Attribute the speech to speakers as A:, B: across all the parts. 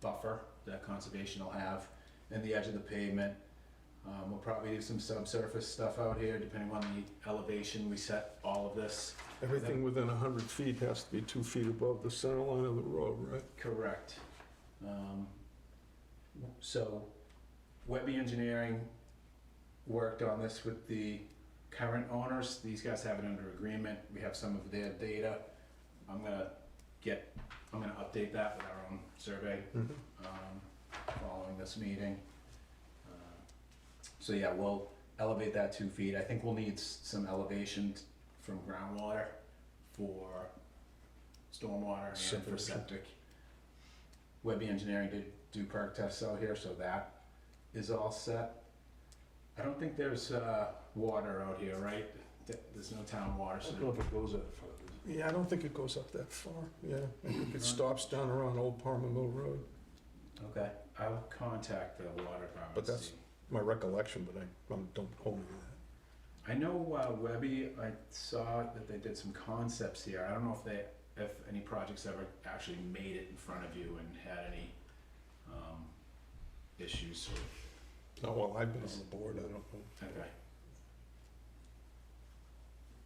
A: buffer that conservation will have in the edge of the pavement. Um, we'll probably do some subsurface stuff out here, depending on the elevation, we set all of this.
B: Everything within 100 feet has to be two feet above the center line of the road, right?
A: Correct. Um, So Webby Engineering worked on this with the current owners. These guys have it under agreement. We have some of their data. I'm gonna get, I'm gonna update that with our own survey um, following this meeting. Uh, So yeah, we'll elevate that two feet. I think we'll need s- some elevation t- from groundwater for stormwater and for
B: Separation.
A: septic. Webby Engineering did do perk tests out here, so that is all set. I don't think there's uh, water out here, right? Th- There's no town water, so.
C: know if it goes that far. does it?
B: Yeah, I don't think it goes up that far, yeah. I think it stops down around Old Palmer Mill Road,
A: Okay, I'll contact the water department.
B: But
A: to
B: that's-
A: see.
B: my recollection, but I um, don't hold me to that.
A: I know uh, Webby, I saw that they did some concepts here. I don't know if they, if any projects ever actually made it in front of you and had any um, issues or,
B: No, well, I've been on the board, I don't know.
A: okay.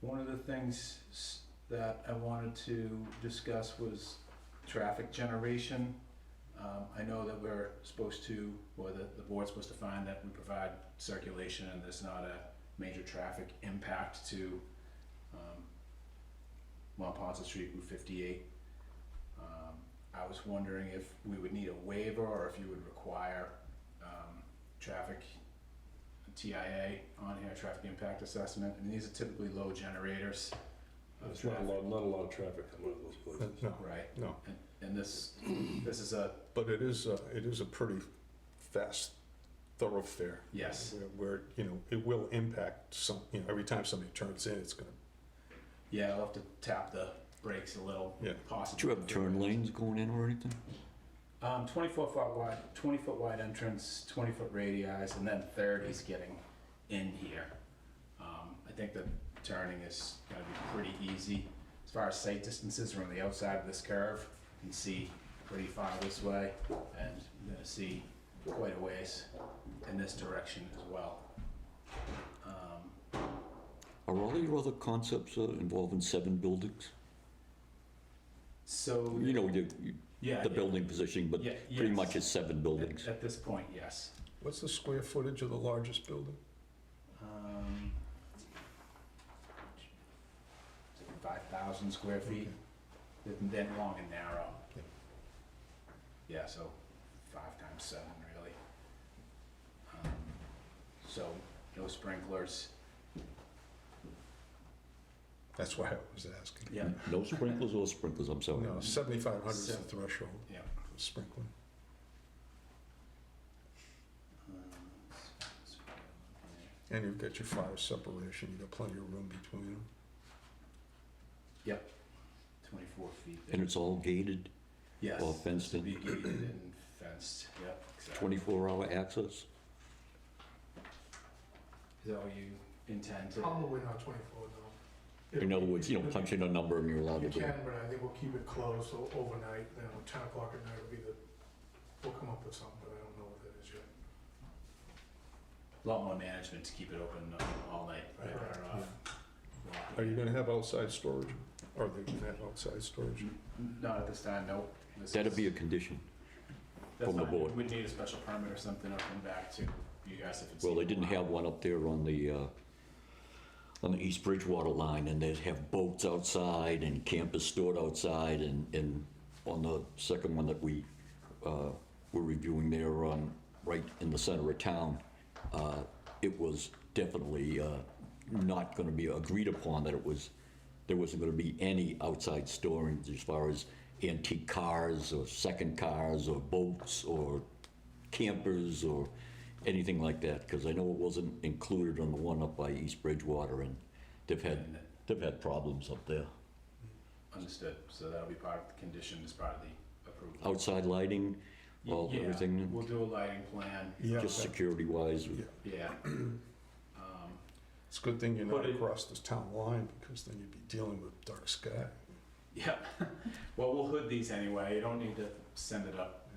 A: One of the things s- that I wanted to discuss was traffic generation. Um, I know that we're supposed to, or that the board's supposed to find that we provide circulation and there's not a major traffic impact to, um, Mont Ponce Street, Route fifty-eight. Um, I was wondering if we would need a waiver or if you would require, um, traffic TIA on here, traffic impact assessment, and these are typically low generators. of
C: There's not a
A: traffic.
C: lot, not a lot of traffic coming out of those places.
B: No,
A: Right,
B: no,
A: and, and this, this is a,
B: but it is, a- it is a pretty fast thoroughfare.
A: yes,
B: Where- Where, you know, it will impact some, you know, every time somebody turns in, it's gonna,
A: yeah, I'll have to tap the brakes a little,
B: Yeah.
A: possibly.
D: Do you have turn lanes going in or anything?
A: Um, twenty-four foot wide, twenty foot wide entrance, twenty foot radii, and then thirty's getting in here. Um, I think the turning is gonna be pretty easy. As far as sight distances, we're on the outside of this curve, you can see pretty far this way, and you're gonna see quite a ways in this direction as well. Um,
D: Are all your other concepts uh, involving seven buildings?
A: So.
D: You know, you, you-
A: Yeah.
D: the
A: yeah.
D: building positioning, but
A: Yeah,
D: pretty
A: yes.
D: much it's seven buildings.
A: At, at this point, yes.
B: what's the square footage of the largest building?
A: Um, five thousand square feet, then- then long and narrow.
B: Yeah.
A: Yeah, so five times seven, really. Um, So no sprinklers.
B: That's why I was asking.
A: Yeah.
D: No sprinklers or sprinklers, I'm sorry.
B: No, 7,500 is the
A: So-
B: threshold
A: Yeah.
B: for sprinkling. And you've got your fire separation, you've got plenty of room between them.
A: Twenty-four feet.
D: And it's all gated,
A: Yes.
D: all fenced
A: Be
D: in,
A: gated and fenced, yep. exactly.
D: 24 hour access?
A: Is that what you intend to?
E: Probably not twenty-four, no.
D: In other words, you know, punch in a number and you're allowed
E: You
D: to do
E: can,
D: it.
E: but I think we'll keep it closed o- overnight, then at ten o'clock at night will be the, we'll come up with something, but I don't know what that is yet.
A: lot more management to keep it open uh, all night. right,
E: Right.
A: or off.
B: Are you gonna have outside storage? Are they gonna have outside storage?
A: Not at this time, nope. This
D: That'd
A: is-
D: be a condition.
A: that's
D: from the
A: fine.
D: board.
A: We'd need a special permit or something, I'll come back to you guys if it's.
D: Well, they didn't have one up there on the, uh, on the East Bridgewater line and they'd have boats outside and campers stored outside and, and on the second one that we, uh, were reviewing there on, right in the center of town, uh, it was definitely, uh, not gonna be agreed upon that it was, there wasn't gonna be any outside storing as far as antique cars or second cars or boats or campers or anything like that, because I know it wasn't included on the one up by East Bridgewater, and they've had,
A: And
D: they've had problems up there.
A: Understood, so that'll be part of the condition, as part of the approval.
D: Outside lighting,
A: Y-
D: well,
A: yeah,
D: Oh, everything-
A: We'll do a lighting plan,
B: Yeah.
D: just security-wise,
B: Yeah.
A: yeah. Um,
B: It's a good thing you're not
A: But it-
B: across this town line, because then you'd be dealing with dark sky.
A: Yep, well, we'll hood these anyway, you don't need to send it up